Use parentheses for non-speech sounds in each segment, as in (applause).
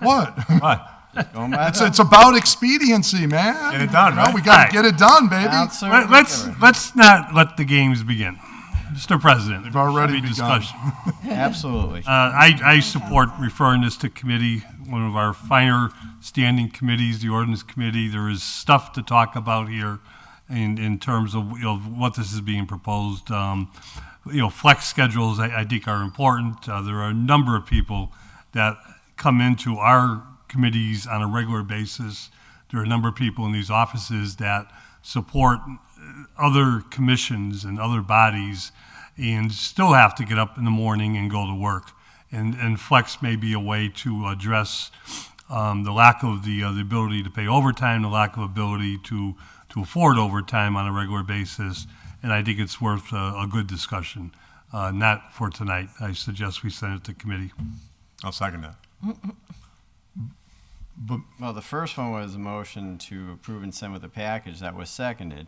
What? (laughs) What? Don't matter. It's, it's about expediency, man. Get it done, You know, right? We gotta Right. get it done, baby. Out, sir. Let- Let's, let's not let the games begin. Mr. President. They've already begun. discussion. Absolutely. Uh, I, I support referring this to committee, one of our finer standing committees, the ordinance committee. There is stuff to talk about here in, in terms of, you know, what this is being proposed. Um, You know, flex schedules, I, I think are important. Uh, there are a number of people that come into our committees on a regular basis. There are a number of people in these offices that support other commissions and other bodies and still have to get up in the morning and go to work. And, and flex may be a way to address um, the lack of the, uh, the ability to pay overtime, the lack of ability to, to afford overtime on a regular basis. And I think it's worth a, a good discussion. Uh, not for tonight. I suggest we send it to committee. I'll second that. Well, the first one was a motion to approve and send with a package that was seconded.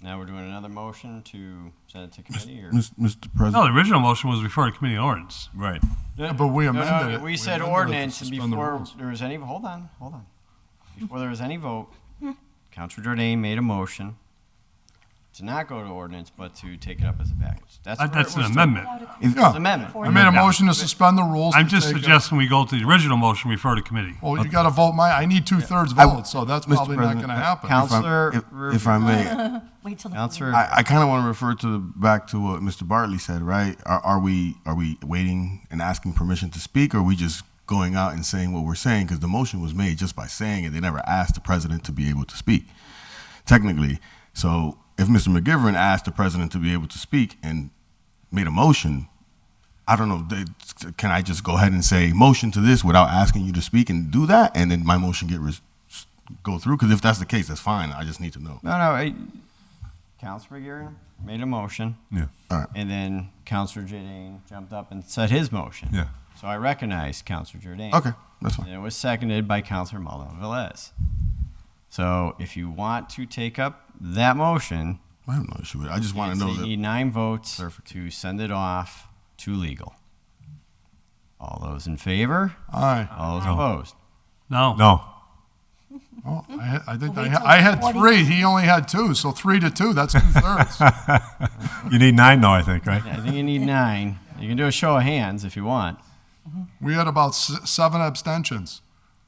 Now we're doing another motion to send it to committee or? Mis- Mr. President. No, the original motion was refer to committee on ordinance. Right. Yeah, But we No, no, amended it. We said amended it to ordinance and suspend the before rules. there was any, hold on, hold on. Before there was any vote, Counselor Jordan made a motion to not go to ordinance, but to take it up as a package. That's Uh, That- where it That's an was- amendment. oh, It's amendment. I made a motion to suspend the rules. I'm to just take a- suggesting we go to the original motion, refer to committee. Well, you gotta vote my, I need two-thirds I- vote, so that's Mr. probably not President, uh, gonna I- happen. if I- Counselor if- Rubio. If I may, Wait till the. Counselor, I, I kind of want to refer to the, back to what Mr. Bartley said, right? Are, are we, are we waiting and asking permission to speak, or are we just going out and saying what we're saying? Because the motion was made just by saying it. They never asked the president to be able to speak, technically. So if Mr. McGivern asked the president to be able to speak and made a motion, I don't know. they- Can I just go ahead and say motion to this without asking you to speak and do that, and then my motion get res- go through? Because if that's the case, that's fine. I just need to know. no, no, I, Counselor McGivern made a motion. Yeah. All right. And then Counselor Jordan jumped up and said his motion. Yeah. So I recognized Counselor Jordan. Okay, that's fine. And it was seconded by Counselor Maldonado Velez. So if you want to take up that motion, I have no issue with it. I just want it's- to know you need that. nine votes to send it off to legal. All those in favor? Aye. All those opposed? No. No. Oh, I, had- I think Well, I, wait had- till I had 40. three, he only had two, so three to two, that's two-thirds. (laughs) You need nine though, I think, right? Yeah, I think you need nine. You can do a show of hands if you want. We had about s- seven abstentions.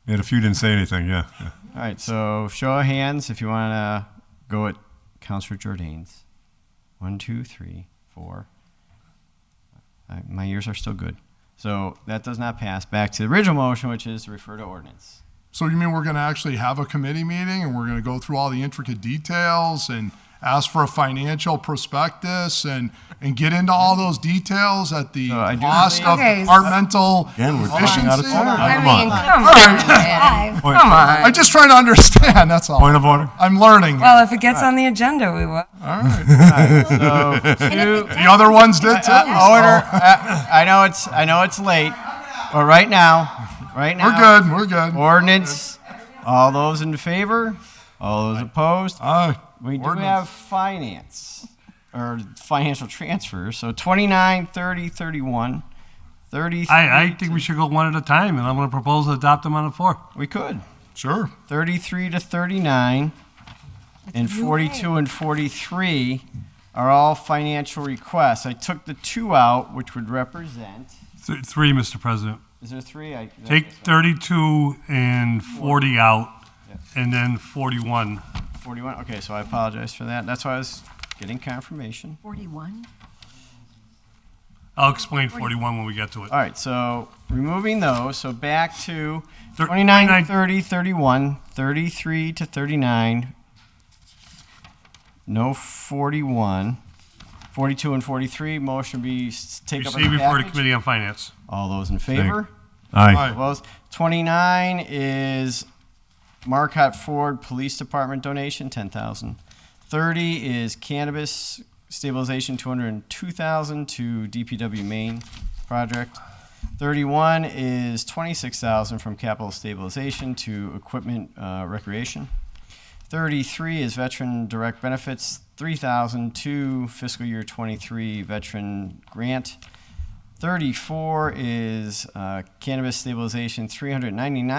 And a few didn't say anything, yeah. yeah. All right, so show of hands if you want to go at Counselor Jordan's. One, two, three, four. Uh, my ears are still good. So that does not pass. Back to the original motion, which is to refer to ordinance. So you mean we're gonna actually have a committee meeting and we're gonna go through all the intricate details and ask for a financial prospectus and, and get into all those details at the No, I do- cost of Okay. departmental Again, we're running out of efficiency? time. I Come mean, on. come on, man. Five. Point, Come on. I'm just trying to understand, that's all. point of order? I'm learning. All Well, if it gets on the agenda, we will. right. So two, The other ones did too. uh, order. Uh, I know it's I know it's late, but right now, right now, We're good, we're good. Ordinance. All those in favor? All those opposed? Aye. We do Ordinance. have finance or financial transfers. So 29, 30, 31, 33. I, I think we should go one at a time, and I'm going to propose to adopt them on the floor. we could. Sure. 33 to 39 and 42 and 43 are all financial requests. I took the two out, which would represent. Th- Three, Mr. President. Is there three? I, Take 32 and 40 out, and then 41. 41. Okay, so I apologize for that. That's why I was getting confirmation. Forty-one? I'll explain 41 when we get to it. All right, so removing those, so back to Thir- 29, 29. 30, 31, 33 to 39, no 41, 42 and 43, motion be s- take up as Receive a before the package. Committee on Finance. All those in favor? Aye. Aye. Opposed? 29 is Marquette Ford Police Department donation, 10,000. 30 is cannabis stabilization, 202,000 to DPW Main project. 31 is 26,000 from capital stabilization to equipment uh, recreation. 33 is veteran direct benefits, 3,000 to fiscal year 23 veteran grant. Thirty-four is uh, cannabis stabilization, three hundred ninety-nine.